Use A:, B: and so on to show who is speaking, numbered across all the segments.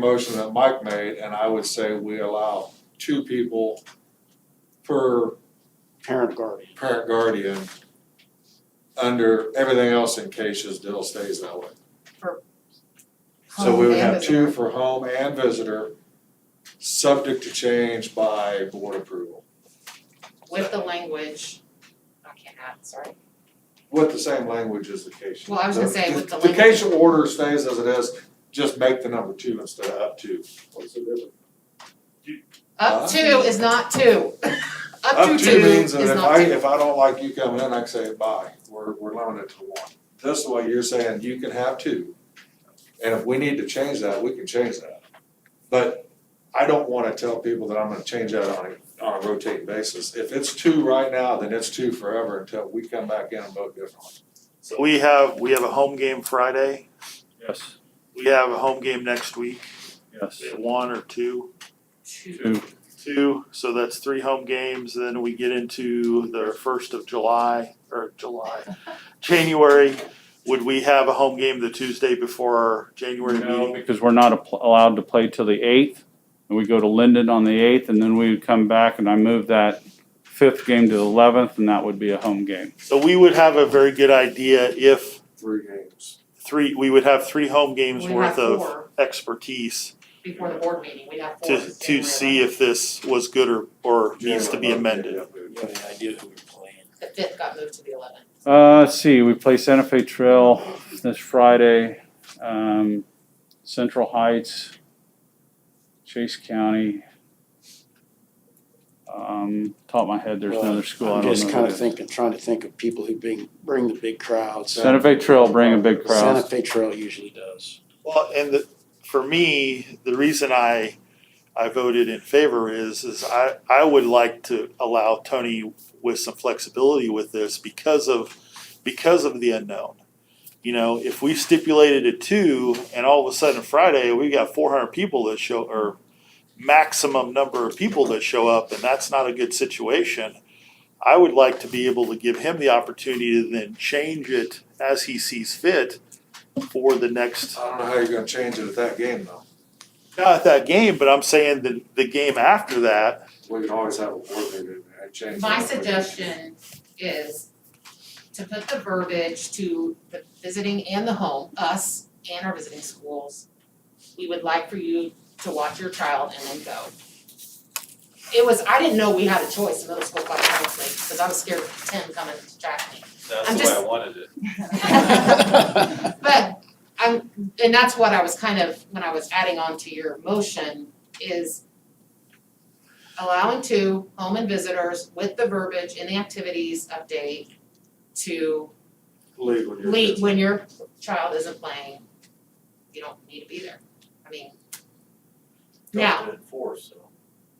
A: motion that Mike made, and I would say we allow two people per
B: parent guardian.
A: parent guardian under everything else in cases Dill stays that way. So we would have two for home and visitor, subject to change by board approval,
C: With the language, I can't add, sorry.
A: with the same language as the case.
C: Well, I was gonna say with the
A: The case order stays as it is, just make the number two instead of up to. What's the difference?
C: Up two is not two. Up to
A: Up
C: two
A: to
C: is
A: means that if
C: not
A: I,
C: two.
A: if I don't like you coming in, I can say bye, we're, we're limited to one. This way, you're saying you can have two, and if we need to change that, we can change that. But I don't wanna tell people that I'm gonna change that on a, on a rotating basis. If it's two right now, then it's two forever until we come back in and vote differently.
D: We have, we have a home game Friday,
E: Yes,
D: we have a home game next week,
E: yes.
D: one or two,
C: Two.
E: Two,
D: two, so that's three home games, then we get into the first of July, or July, January, would we have a home game the Tuesday before our January
E: no,
D: meeting?
E: because we're not apl- allowed to play till the eighth, and we go to Linden on the eighth, and then we would come back, and I move that fifth game to the eleventh, and that would be a home game.
D: So we would have a very good idea if
A: Three games.
D: three, we would have three home games
C: We'd
D: worth
C: have
D: of
C: four
D: expertise
C: before the board meeting, we'd have four.
D: to, to see if this was good or, or needs to be amended.
F: You have any idea who we're playing?
C: The fifth got moved to the eleventh.
E: Uh, let's see, we play Santa Fe Trail this Friday, um, Central Heights, Chase County. Um, top of my head, there's another school, I
B: I'm
E: don't know.
B: just kinda
E: who it is.
B: thinking, trying to think of people who bring, bring the big crowds.
A: Santa-
E: Santa Fe Trail, bring a big crowd.
B: Santa Fe Trail usually does.
D: Well, and the, for me, the reason I, I voted in favor is, is I, I would like to allow Tony with some flexibility with this because of, because of the unknown. You know, if we stipulated a two and all of a sudden Friday, we got four hundred people that show, or maximum number of people that show up, and that's not a good situation. I would like to be able to give him the opportunity to then change it as he sees fit for the next
A: I don't know how you're gonna change it at that game though.
D: not at that game, but I'm saying the the game after that.
A: We can always have a board meeting and change.
C: My
A: that.
C: suggestion is to put the verbiage to the visiting and the home, us and our visiting schools. We would like for you to watch your child and then go. It was, I didn't know we had a choice in middle school, quite honestly, because I was scared of Tim coming to jack me.
F: That's
C: I'm
F: the way I
C: just-
F: wanted it.
C: But I'm, and that's what I was kind of, when I was adding on to your motion, is allowing two home and visitors with the verbiage in the activities update to
A: Leave when you're.
C: leave when your child isn't playing, you don't need to be there. I mean, now,
F: Don't enforce, so.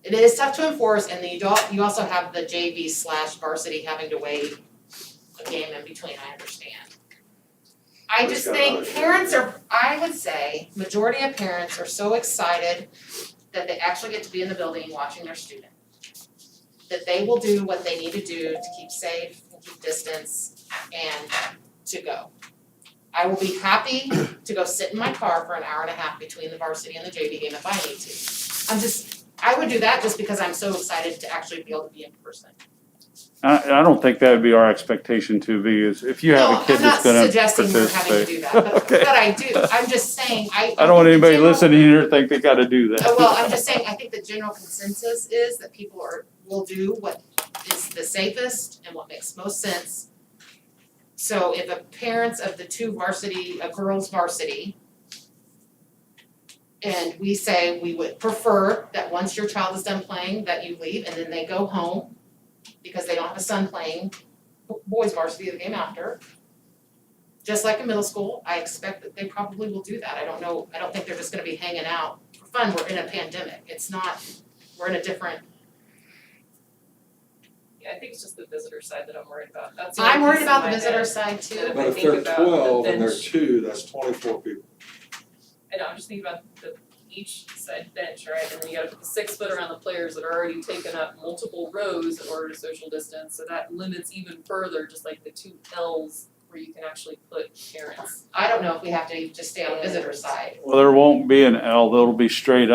C: it is tough to enforce and then you don't, you also have the JV slash varsity having to wait a game in between, I understand. I
A: Who's
C: just
A: got
C: think
A: another?
C: parents are, I would say, majority of parents are so excited that they actually get to be in the building watching their student. That they will do what they need to do to keep safe, and keep distance and to go. I will be happy to go sit in my car for an hour and a half between the varsity and the JV game if I need to. I'm just, I would do that just because I'm so excited to actually be able to be in person.
E: I, I don't think that would be our expectation to be is if you have a kid that's
C: No, I'm
E: gonna
C: not suggesting we're having to
E: participate.
C: do that, but
E: Okay.
C: but I do, I'm just saying, I
E: I don't
C: think
E: want
C: the
E: anybody
C: general-
E: listening here to think they gotta do
C: Uh,
E: that.
C: Well, I'm just saying, I think the general consensus is that people are, will do what is the safest and what makes most sense. So if a parents of the two varsity, a girls varsity. And we say we would prefer that once your child is done playing, that you leave and then they go home. Because they don't have a son playing bo- boys varsity the game after. Just like in middle school, I expect that they probably will do that. I don't know, I don't think they're just gonna be hanging out for fun, we're in a pandemic, it's not, we're in a different,
G: Yeah, I think it's just the visitor side that I'm worried about, that's the only
C: I'm worried
G: piece in
C: about
G: my
C: the
G: head.
C: visitor side too.
G: if
A: But
G: I
A: if
G: think
A: they're
G: about the
A: twelve and they're
G: bench-
A: two, that's twenty-four people.
G: I know, I'm just thinking about the each side bench, right, and then you gotta put the six foot around the players that are already taken up multiple rows in order to social distance, so that limits even further, just like the two Ls where you can actually put parents.
C: I don't know if we have to just stay on visitor side.
E: Well, there won't be an L, there'll be straight